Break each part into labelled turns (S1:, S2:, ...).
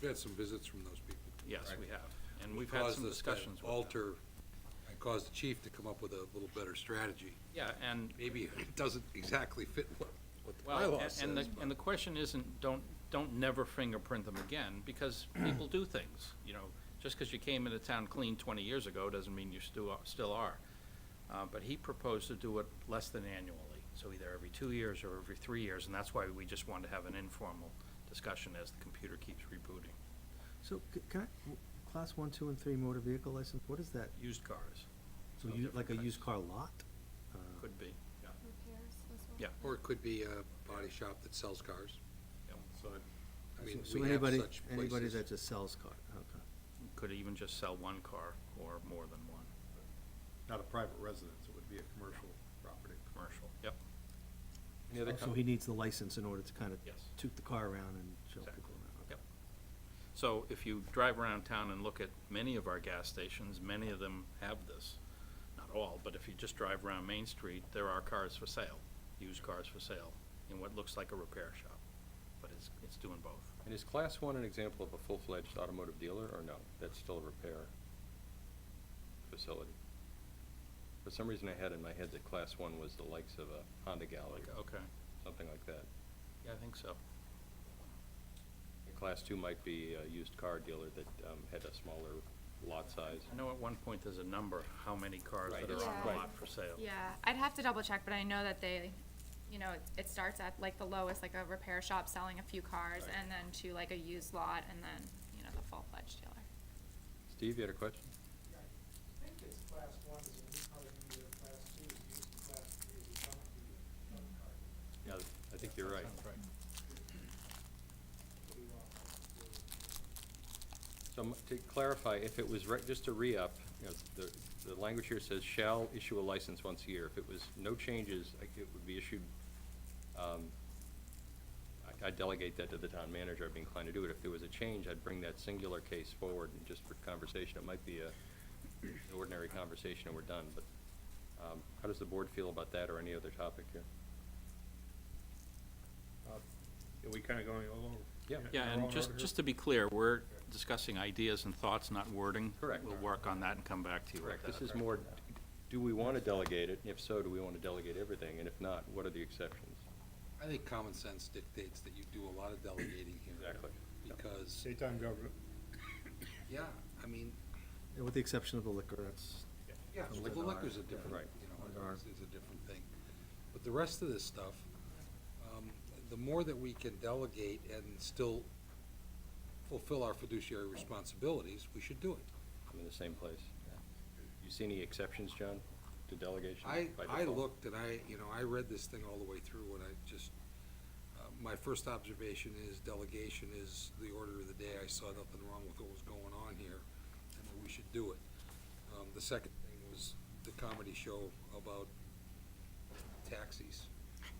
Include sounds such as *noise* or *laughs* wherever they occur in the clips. S1: We've had some visits from those people.
S2: Yes,
S1: Right.
S2: we have, and we've had
S1: Caused
S2: some
S1: us to
S2: discussions with them.
S1: Alter, I caused the chief to come up with a little better strategy.
S2: Yeah, and,
S1: Maybe it doesn't exactly fit what, what the
S2: well,
S1: bylaw
S2: a- and the,
S1: says,
S2: and the question isn't, don't, don't never fingerprint them again,
S1: *clears throat*
S2: because people do things, you know. Just because you came into town clean twenty years ago doesn't mean you still, are- still are. Uh, but he proposed to do it less than annually, so either every two years or every three years, and that's why we just wanted to have an informal discussion as the computer keeps rebooting.
S3: So, c- can I, w- class one, two, and three motor vehicle license, what is that?
S2: Used cars,
S3: So
S2: No
S3: you,
S2: different
S3: like a
S2: types.
S3: used car lot? Uh,
S2: could be, yeah.
S4: repairs as well?
S2: Yeah.
S1: Or it could be a body shop that sells cars.
S2: So it
S1: I
S3: so-
S1: mean,
S3: so
S1: we have
S3: anybody-
S1: such
S3: Anybody
S1: places.
S3: that just sells car, okay.
S2: Could even just sell one car or more than one,
S5: not a private residence, it would be a commercial property.
S2: commercial, yep.
S5: Any other
S3: Oh, So
S5: com-
S3: he needs the license in order to kind of
S2: Yes.
S3: toot the car around and show people
S2: Exactly.
S3: around. okay.
S2: Yep. So if you drive around town and look at many of our gas stations, many of them have this. Not all, but if you just drive around Main Street, there are cars for sale, used cars for sale, in what looks like a repair shop. But it's, it's doing both.
S6: And is class one an example of a full-fledged automotive dealer, or no? That's still a repair facility? For some reason, I had in my head that class one was the likes of a Honda Galley, or
S2: Okay,
S6: something like that.
S2: yeah, I think so.
S6: And Class two might be a used car dealer that um, had a smaller lot size.
S2: I know at one point there's a number, how many cars
S6: Right,
S2: that are
S4: it's-
S2: on the
S4: Right.
S2: lot for sale.
S4: Yeah, I'd have to double check, but I know that they, you know, it- it starts at like the lowest, like a repair shop selling a few cars,
S2: Right.
S4: and then to like a used lot, and then, you know, the full-fledged dealer.
S6: Steve, you had a question?
S7: I think it's class one is a new car dealer, class two is used, and class three is a junk dealer, junk car dealer.
S6: Yeah, I think you're right.
S7: What do you want us to do?
S6: So m- to clarify, if it was, re- just to re-up, you know, the, the language here says shall issue a license once a year. If it was no changes, I- it would be issued, um, I I delegate that to the town manager, I'd be inclined to do it. If there was a change, I'd bring that singular case forward and just for conversation. It might be a an ordinary conversation and we're done, but um, how does the board feel about that or any other topic here?
S5: Uh, Are we kind of going along?
S6: Yeah.
S5: in- in
S2: Yeah,
S5: our
S2: and
S5: own
S2: just,
S5: order?
S2: just to be clear, we're discussing ideas and thoughts, not wording.
S6: Correct.
S2: We'll work on that and come back to you with
S6: Correct,
S2: that.
S6: this is more, d- do we want to delegate it? If so, do we want to delegate everything? And if not, what are the exceptions?
S1: I think common sense dictates that you do a lot of delegating here.
S6: Exactly.
S1: Because,
S5: State time government.
S1: yeah, I mean,
S3: And With the exception of the liquor, that's,
S1: yeah,
S3: Comes
S1: liquor
S3: with
S1: liquor's a
S3: our-
S1: different,
S6: Right.
S1: you
S3: With
S1: know,
S3: our-
S1: it's, it's a different thing. But the rest of this stuff, um, the more that we can delegate and still fulfill our fiduciary responsibilities, we should do it.
S6: I'm in the same place. You see any exceptions, John, to delegation?
S1: I,
S6: by
S1: I
S6: default?
S1: looked and I, you know, I read this thing all the way through and I just, uh, my first observation is delegation is the order of the day. I saw nothing wrong with what was going on here and that we should do it. Um, the second thing was the comedy show about taxis. Um,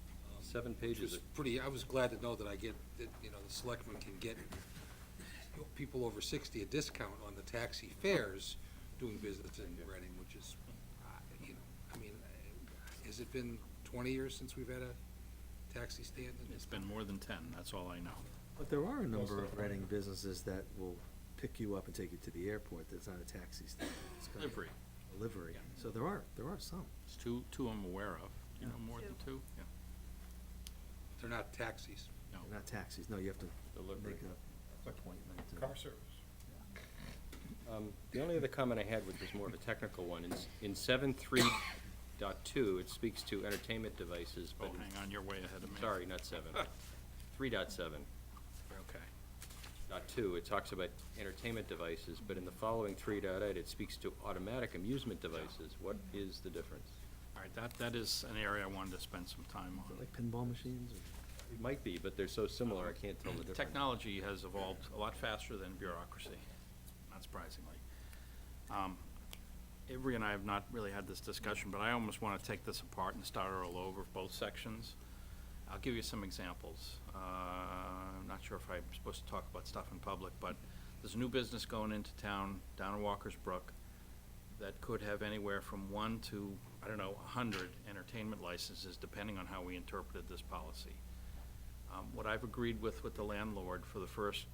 S6: Seven
S1: which
S6: pages
S1: was
S6: of-
S1: Pretty, I was glad to know that I get, that, you know, the selectmen can get you know, people over sixty a discount on the taxi fares doing business in Reading, which is, uh, you know, I mean, uh, has it been twenty years since we've had a taxi stand? in this
S2: It's been more than ten, that's all I know.
S3: but there are a number of Reading businesses that will pick you up and take you to the airport, that's not a taxi stand. it's kind of
S2: Livery.
S3: a Livery,
S2: Yeah.
S3: so there are, there are some.
S2: It's two, two I'm aware of. Do you know
S3: Yeah.
S2: more than two? Yeah.
S1: They're not taxis.
S2: No.
S3: They're Not taxis, no, you have to
S6: Delivery.
S3: make a appointment. to-
S5: Car service.
S6: Um, The only other comment I had, which was more of a technical one, is in seven three dot two, it speaks to entertainment devices,
S2: Oh,
S6: but. in-
S2: hang on, you're way ahead of me.
S6: Sorry,
S2: *laughs*
S6: not seven. Three dot seven.
S2: Okay.
S6: Dot two, it talks about entertainment devices, but in the following three dot eight, it speaks to automatic amusement devices. What is the difference?
S2: All right, that, that is an area I wanted to spend some time
S3: Is it
S2: on.
S3: Like pinball machines or?
S6: It might be, but they're so similar, I can't tell the difference.
S2: Technology has evolved a lot faster than bureaucracy, not surprisingly. Um, Avery and I have not really had this discussion, but I almost want to take this apart and start all over, both sections. I'll give you some examples. Uh, I'm not sure if I'm supposed to talk about stuff in public, but there's a new business going into town, down in Walker's Brook, that could have anywhere from one to, I don't know, a hundred entertainment licenses, depending on how we interpreted this policy. Um, What I've agreed with, with the landlord for the first